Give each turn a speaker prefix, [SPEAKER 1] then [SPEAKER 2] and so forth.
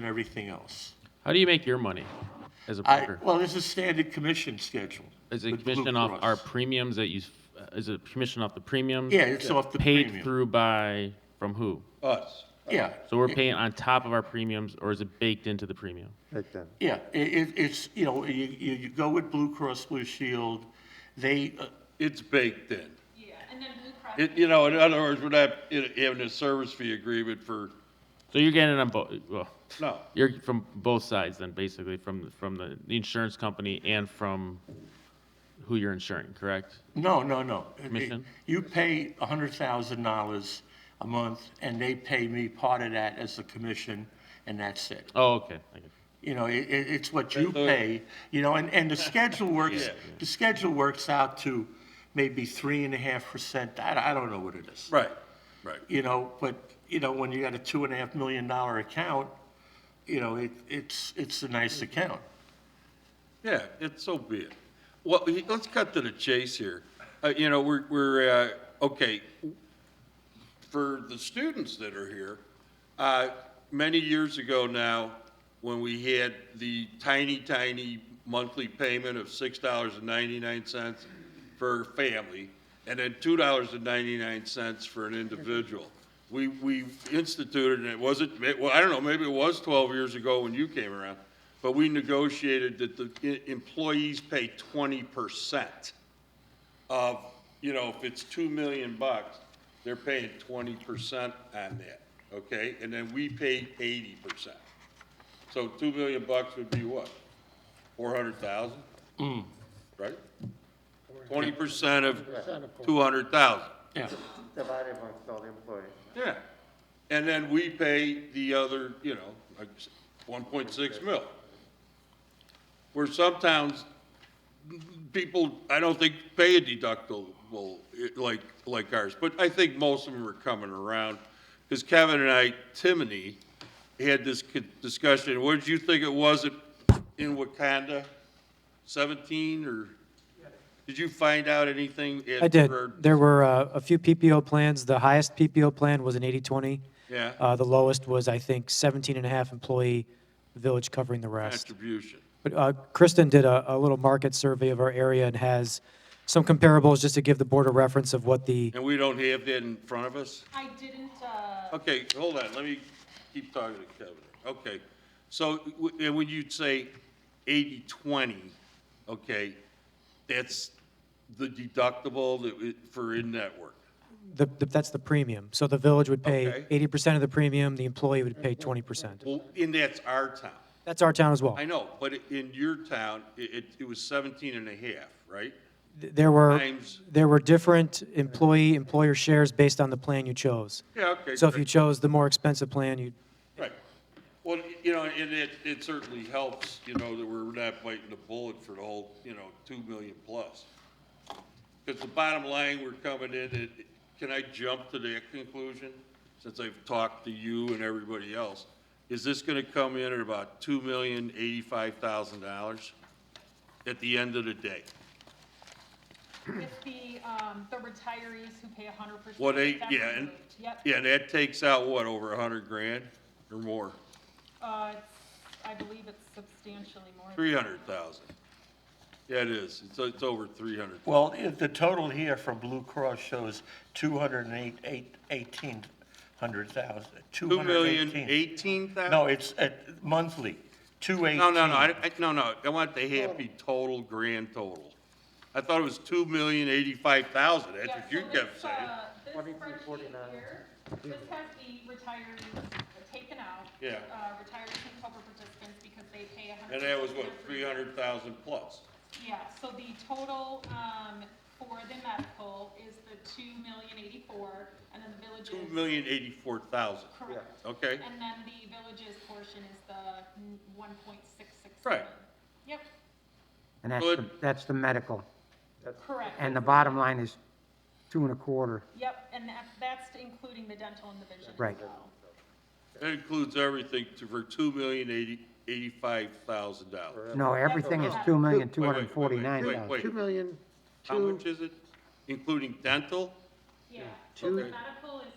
[SPEAKER 1] and everything else.
[SPEAKER 2] How do you make your money as a
[SPEAKER 1] I,
[SPEAKER 2] broker?
[SPEAKER 1] well, this is standard commission schedule.
[SPEAKER 2] Is it
[SPEAKER 1] with Blue
[SPEAKER 2] commission off our
[SPEAKER 1] Cross.
[SPEAKER 2] premiums that you, s- uh, is it commission off the premiums?
[SPEAKER 1] Yeah, it's off the
[SPEAKER 2] Paid
[SPEAKER 1] premium.
[SPEAKER 2] through by, from who?
[SPEAKER 3] Us.
[SPEAKER 1] Yeah,
[SPEAKER 2] So we're paying on top of our premiums, or is it baked into the premium?
[SPEAKER 4] Back then.
[SPEAKER 1] yeah, i- i- it's, you know, you, you you go with Blue Cross Blue Shield, they, uh,
[SPEAKER 3] It's baked in.
[SPEAKER 5] Yeah, and then Blue Cross.
[SPEAKER 3] It, you know, in other words, we're not in- having a service fee agreement for,
[SPEAKER 2] So you're getting on both, well,
[SPEAKER 3] no.
[SPEAKER 2] you're from both sides then, basically, from, from the the insurance company and from who you're insuring, correct?
[SPEAKER 1] no, no, no.
[SPEAKER 2] Commission?
[SPEAKER 1] You pay hundred thousand dollars a month, and they pay me part of that as a commission, and that's it.
[SPEAKER 2] Oh, okay. I get it.
[SPEAKER 1] You know, it, it, it's what you
[SPEAKER 3] the-
[SPEAKER 1] pay, you know, and, and the schedule works, the schedule works out to maybe three and a half percent, I, I don't know what it is.
[SPEAKER 3] Right, right.
[SPEAKER 1] you know, but, you know, when you got a two and a half million dollar account, you know, it, it's, it's a nice account.
[SPEAKER 3] Yeah, it's so be it. Well, he- let's cut to the chase here. Uh, you know, we're, we're, uh, okay, for the students that are here, uh, many years ago now, when we had the tiny, tiny monthly payment of six dollars and ninety-nine cents for a family, and then two dollars and ninety-nine cents for an individual. We, we instituted, and it wasn't, it- well, I don't know, maybe it was twelve years ago when you came around, but we negotiated that the e- employees pay twenty percent of, you know, if it's two million bucks, they're paying twenty percent on that, okay? And then we pay eighty percent. So two million bucks would be what? Four hundred thousand? Right? Twenty percent of two hundred thousand,
[SPEAKER 1] Yeah.
[SPEAKER 4] Divided amongst all the employees.
[SPEAKER 3] yeah. And then we pay the other, you know, like one point six mil. Where some towns people, I don't think pay a deductible eh, like, like ours, but I think most of them are coming around. Because Kevin and I, Timony, had this co- discussion, what did you think it was at- in Wakanda? Seventeen, or, did you find out anything? at-
[SPEAKER 6] I did.
[SPEAKER 3] or-
[SPEAKER 6] There were uh, a few PPO plans. The highest PPO plan was an 80/20.
[SPEAKER 3] Yeah.
[SPEAKER 6] Uh, The lowest was, I think, 17 and a half employee, the village covering the rest.
[SPEAKER 3] Contribution.
[SPEAKER 6] But uh, Kristen did a a little market survey of our area and has some comparables just to give the board a reference of what the
[SPEAKER 3] And we don't have that in front of us?
[SPEAKER 5] I didn't, uh,
[SPEAKER 3] Okay, hold on, let me keep talking to Kevin. Okay, so, w- and when you say 80-20, okay, that's the deductible that, we- for in-network.
[SPEAKER 6] the, the- that's the premium. So the village would pay
[SPEAKER 3] Okay.
[SPEAKER 6] 80% of the premium, the employee would pay 20%.
[SPEAKER 3] Well, and that's our town.
[SPEAKER 6] That's our town as well.
[SPEAKER 3] I know, but in your town, i- it, it was 17 and a half, right?
[SPEAKER 6] Th- There were,
[SPEAKER 3] Times-
[SPEAKER 6] there were different employee, employer shares based on the plan you chose.
[SPEAKER 3] Yeah, okay.
[SPEAKER 6] So if
[SPEAKER 3] great.
[SPEAKER 6] you chose the more expensive plan, you'd
[SPEAKER 3] Right. Well, you know, and it, it certainly helps, you know, that we're not biting the bullet for the whole, you know, two million plus. Because the bottom line, we're coming in, and can I jump to that conclusion? Since I've talked to you and everybody else, is this gonna come in at about two million eighty-five thousand dollars at the end of the day?
[SPEAKER 5] it's the, um, the retirees who pay hundred percent.
[SPEAKER 3] What they, yeah, and,
[SPEAKER 5] Yep.
[SPEAKER 3] yeah, and that takes out what, over a hundred grand or more?
[SPEAKER 5] Uh, it's- I believe it's substantially more.
[SPEAKER 3] Three hundred thousand? Yeah, it is. It's, it's over three hundred
[SPEAKER 1] Well, i- the total here for Blue Cross shows two hundred and eight, eight, eighteen hundred thousand, two
[SPEAKER 3] Two
[SPEAKER 1] hundred
[SPEAKER 3] million
[SPEAKER 1] and eighteen.
[SPEAKER 3] eighteen thousand?
[SPEAKER 1] No, it's uh, monthly, two eighteen.
[SPEAKER 3] No, no, no, I, I- no, no, I want the happy total, grand total. I thought it was two million eighty-five thousand, that's
[SPEAKER 5] Yeah,
[SPEAKER 3] what you
[SPEAKER 5] so
[SPEAKER 3] kept
[SPEAKER 5] this,
[SPEAKER 3] saying.
[SPEAKER 5] uh, This
[SPEAKER 4] 23,
[SPEAKER 5] spreadsheet here, this has the retirees taken out.
[SPEAKER 3] Yeah.
[SPEAKER 5] Uh, retirees and cover participants because they pay hundred.
[SPEAKER 3] And that was what, three hundred thousand plus?
[SPEAKER 5] Yeah, so the total, um, for the medical is the two million eighty-four, and then the village
[SPEAKER 3] Two
[SPEAKER 5] is.
[SPEAKER 3] million eighty-four thousand,
[SPEAKER 5] Correct.
[SPEAKER 3] okay?
[SPEAKER 5] And then the villages portion is the one point six six.
[SPEAKER 3] Right.
[SPEAKER 5] Yep,
[SPEAKER 7] And that's,
[SPEAKER 3] Well,
[SPEAKER 7] the-
[SPEAKER 3] it-
[SPEAKER 7] that's the medical.
[SPEAKER 5] correct.
[SPEAKER 7] And the bottom line is two and a quarter.
[SPEAKER 5] Yep, and that, that's including the dental and the vision as
[SPEAKER 7] Right.
[SPEAKER 5] well.
[SPEAKER 3] That includes everything to, for two million eighty, eighty-five thousand dollars.
[SPEAKER 7] No, everything is
[SPEAKER 5] Wait,
[SPEAKER 7] two million,
[SPEAKER 3] wait,
[SPEAKER 7] two
[SPEAKER 3] wait,
[SPEAKER 7] hundred and forty-nine
[SPEAKER 3] wait,
[SPEAKER 7] thousand.
[SPEAKER 3] wait.
[SPEAKER 4] Two million,
[SPEAKER 3] How
[SPEAKER 4] two,
[SPEAKER 3] much is it? Including dental?
[SPEAKER 5] Yeah, so
[SPEAKER 3] Two-
[SPEAKER 5] the um, medical and